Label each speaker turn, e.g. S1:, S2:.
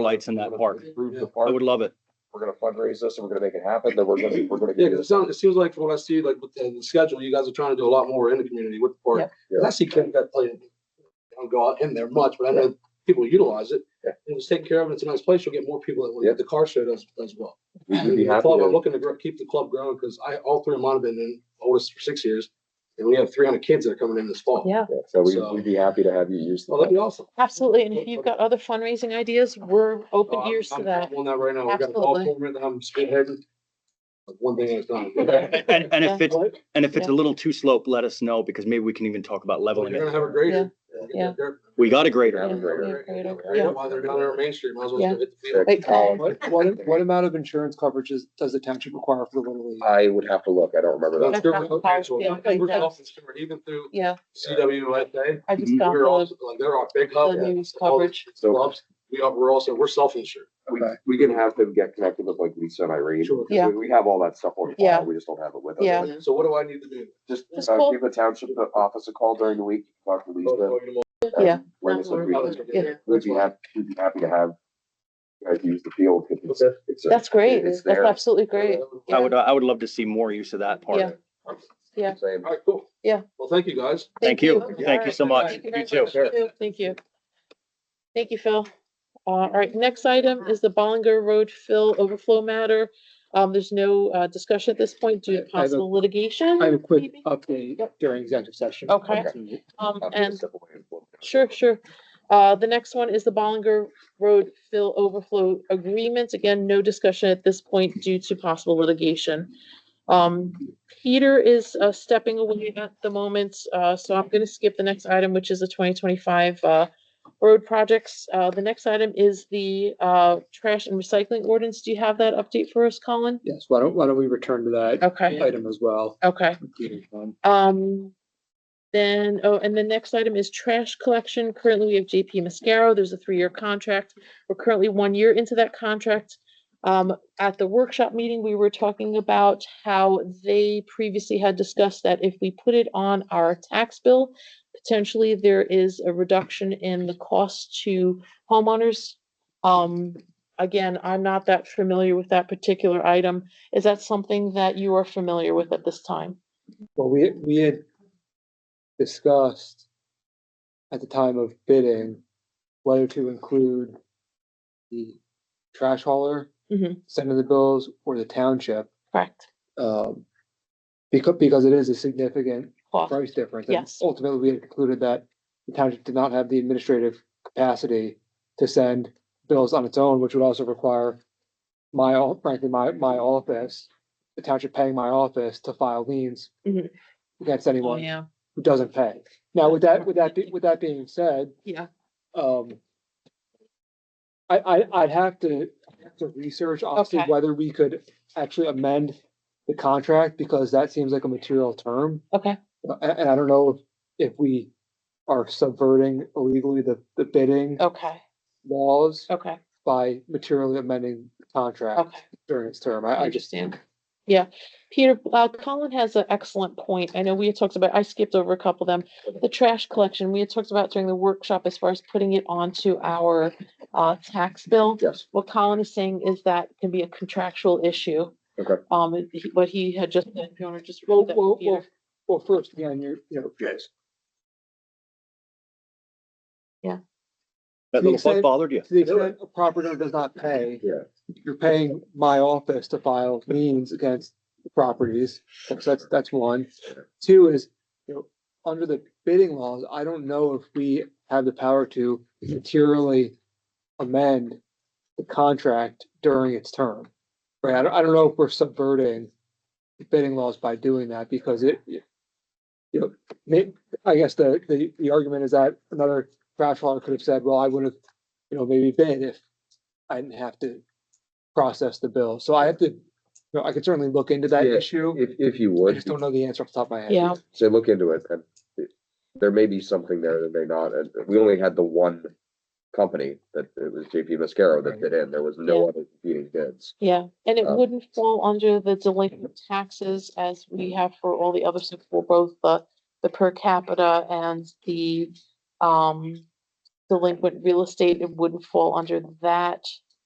S1: lights in that park.
S2: Improve the
S1: I
S2: park.
S1: would love it.
S2: We're gonna fundraise this and we're gonna make it happen, then we're gonna, we're gonna.
S3: Yeah, because it sounds, it seems like from what I see, like with the the schedule, you guys are trying to do a lot more in the community with the
S4: Yeah.
S3: park. 'Cause I see Kennecott playing, I don't go out in there much, but I know people utilize it.
S2: Yeah.
S3: It was taken care of, it's a nice place, you'll get more people that
S2: Yeah.
S3: will, the car show does, does well.
S2: We'd be
S3: The
S2: happy
S3: club, I'm
S2: to,
S3: looking to grow- keep the club growing, because I, all three of mine have been in, oldest for six years, and we have three hundred kids that are coming in this fall.
S4: Yeah,
S2: yeah, so we,
S3: So-
S2: we'd be happy to have you use. the
S3: Well, that'd be awesome.
S4: absolutely. And if you've got other fundraising ideas, we're open
S3: Uh,
S4: ears to
S3: I'm-
S4: that.
S3: I'm On that right now, we've got a golf
S4: Absolutely.
S3: tournament that I'm spearheading. Like, One thing at a time.
S1: And, and if
S4: Yeah.
S1: it's, and if it's a little too slope, let us know because maybe we can even talk about
S3: You're
S1: leveling
S3: gonna
S1: it.
S3: have a grader.
S4: Yeah.
S1: We got a grader.
S2: Have a great
S4: Yeah,
S2: day.
S4: great idea.
S3: Right now, While they're down there on Main Street, might as well
S4: Yeah.
S3: hit the field.
S2: Check
S4: Like,
S2: out.
S5: Oh, What, what, what amount of insurance coverage is- does the township require for the Little
S4: Um,
S5: League?
S2: I would have to look, I don't remember that.
S3: That's
S4: That's
S3: different.
S4: not
S3: Okay, so
S4: possible.
S3: we're talking similar, Even through
S4: Yeah,
S3: CWSA,
S4: I just
S1: Mhm.
S4: got
S3: we're
S4: the
S3: also, like, they're our big
S4: the
S3: hub.
S4: news
S3: All the
S4: coverage.
S2: So
S3: clubs, We are, we're also, we're self-insured.
S2: we,
S5: Okay.
S2: we can have them get connected with like Lisa and Irene.
S3: Sure.
S4: Yeah.
S2: We- We have all that stuff on
S4: Yeah.
S2: file, we just don't have it with us.
S4: Yeah.
S3: Like, So what do I need to do?
S2: Just
S4: Just
S2: uh,
S4: call-
S2: give the township office a call during the week, talk to
S3: Go-
S2: Lisa.
S3: go get 'em all-
S4: Yeah.
S2: Bring us up to
S3: how this
S2: you.
S3: will get-
S2: We'd be happy, we'd be happy to have you guys use the field. if it's-
S3: Okay.
S2: it's a-
S4: That's great.
S2: It's
S4: That's
S2: there.
S4: absolutely great.
S1: I would, I would love to see more use of that
S4: Yeah.
S1: park.
S4: Yeah.
S2: Same.
S3: All
S5: Um,
S3: right, cool.
S4: Yeah.
S3: Well, thank you, guys.
S1: Thank you. Thank you so much.
S4: Thank you very
S1: You
S4: much. Thank you. Thank you, Phil. Uh, All right, next item is the Bollinger Road fill overflow matter. Um, There's no uh, discussion at this point due to
S5: I have a-
S4: possible litigation.
S5: I have a quick Uh,
S4: maybe?
S5: update
S4: Yep.
S5: during executive session.
S4: Okay. Um,
S2: I'll just
S4: And
S2: step away and look.
S4: Sure, sure. Uh, the next one is the Bollinger Road fill overflow agreement. Again, no discussion at this point due to possible litigation. Um, Peter is uh, stepping away at the moment, uh, so I'm gonna skip the next item, which is the twenty twenty-five, uh, road projects. Uh, the next item is the, uh, trash and recycling ordinance. Do you have that update for us, Colin?
S5: Yes, why don't, why don't we return to that
S4: Okay,
S5: item as well?
S4: okay. Um, then, oh, and the next item is trash collection. Currently, we have JP Mascaro. There's a three-year contract. We're currently one year into that contract. Um, at the workshop meeting, we were talking about how they previously had discussed that if we put it on our tax bill, potentially there is a reduction in the cost to homeowners. Um, again, I'm not that familiar with that particular item. Is that something that you are familiar with at this time?
S5: Well, we, we had discussed at the time of bidding whether to include the trash hauler,
S4: Mhm.
S5: sender of the bills, or the township.
S4: Correct.
S5: Um, because, because it is a significant
S4: Cost.
S5: price difference. and
S4: Yes.
S5: Ultimately, we had concluded that the township did not have the administrative capacity to send bills on its own, which would also require my, o- frankly, my, my office, the township paying my office to file liens
S4: Mhm.
S5: against
S4: Oh,
S5: anyone
S4: yeah,
S5: who doesn't pay. Now, with that, with that, be- with that being said,
S4: yeah,
S5: um, I, I, I'd have to, I'd have to research obviously
S4: Okay.
S5: whether we could actually amend the contract because that seems like a material term.
S4: okay,
S5: Uh, a- And, I don't know if we are subverting illegally the, the bidding
S4: okay,
S5: laws
S4: okay,
S5: by materially amending the contract
S4: okay.
S5: during its term.
S4: I
S5: I, I just,
S4: understand. Yeah, Peter, uh, Colin has an excellent point. I know we had talked about, I skipped over a couple of them. The trash collection, we had talked about during the workshop as far as putting it onto our, uh, tax bill.
S2: Yes,
S4: What Colin is saying is that can be a contractual issue.
S2: Okay.
S4: Um, it- he- what he had just, said, if you wanna just.
S5: well,
S4: read that,
S5: well,
S4: Peter.
S5: well, well, first, again, you're, you know,
S1: That little bug bothered you.
S5: to the extent a property owner does not pay.
S2: Yeah.
S5: You're paying my office to file liens against the properties. That's, that's, that's one. Two is, you know, under the bidding laws, I don't know if we have the power to materially amend the contract during its term. Right? I don't, I don't know if we're subverting the bidding laws by doing that because it, you know, may- I guess the, the, the argument is that another trash hauler could have said, well, I would have, you know, maybe bid if I didn't have to process the bill. So I have to, you know, I could certainly look into that
S2: Yeah.
S5: issue.
S2: if, if you
S5: I
S2: would,
S5: just don't know the answer off the top of my head.
S4: Yeah,
S2: so look into it, and it- there may be something there, there may not, and we only had the one company that it was JP Mascaro that bid in, there was no
S4: Yeah.
S2: other competing bids.
S4: yeah, and it
S2: Um,
S4: wouldn't fall under the delinquent taxes as we have for all the other stuff for both the, the per capita and the, um, delinquent real estate, it wouldn't fall under that.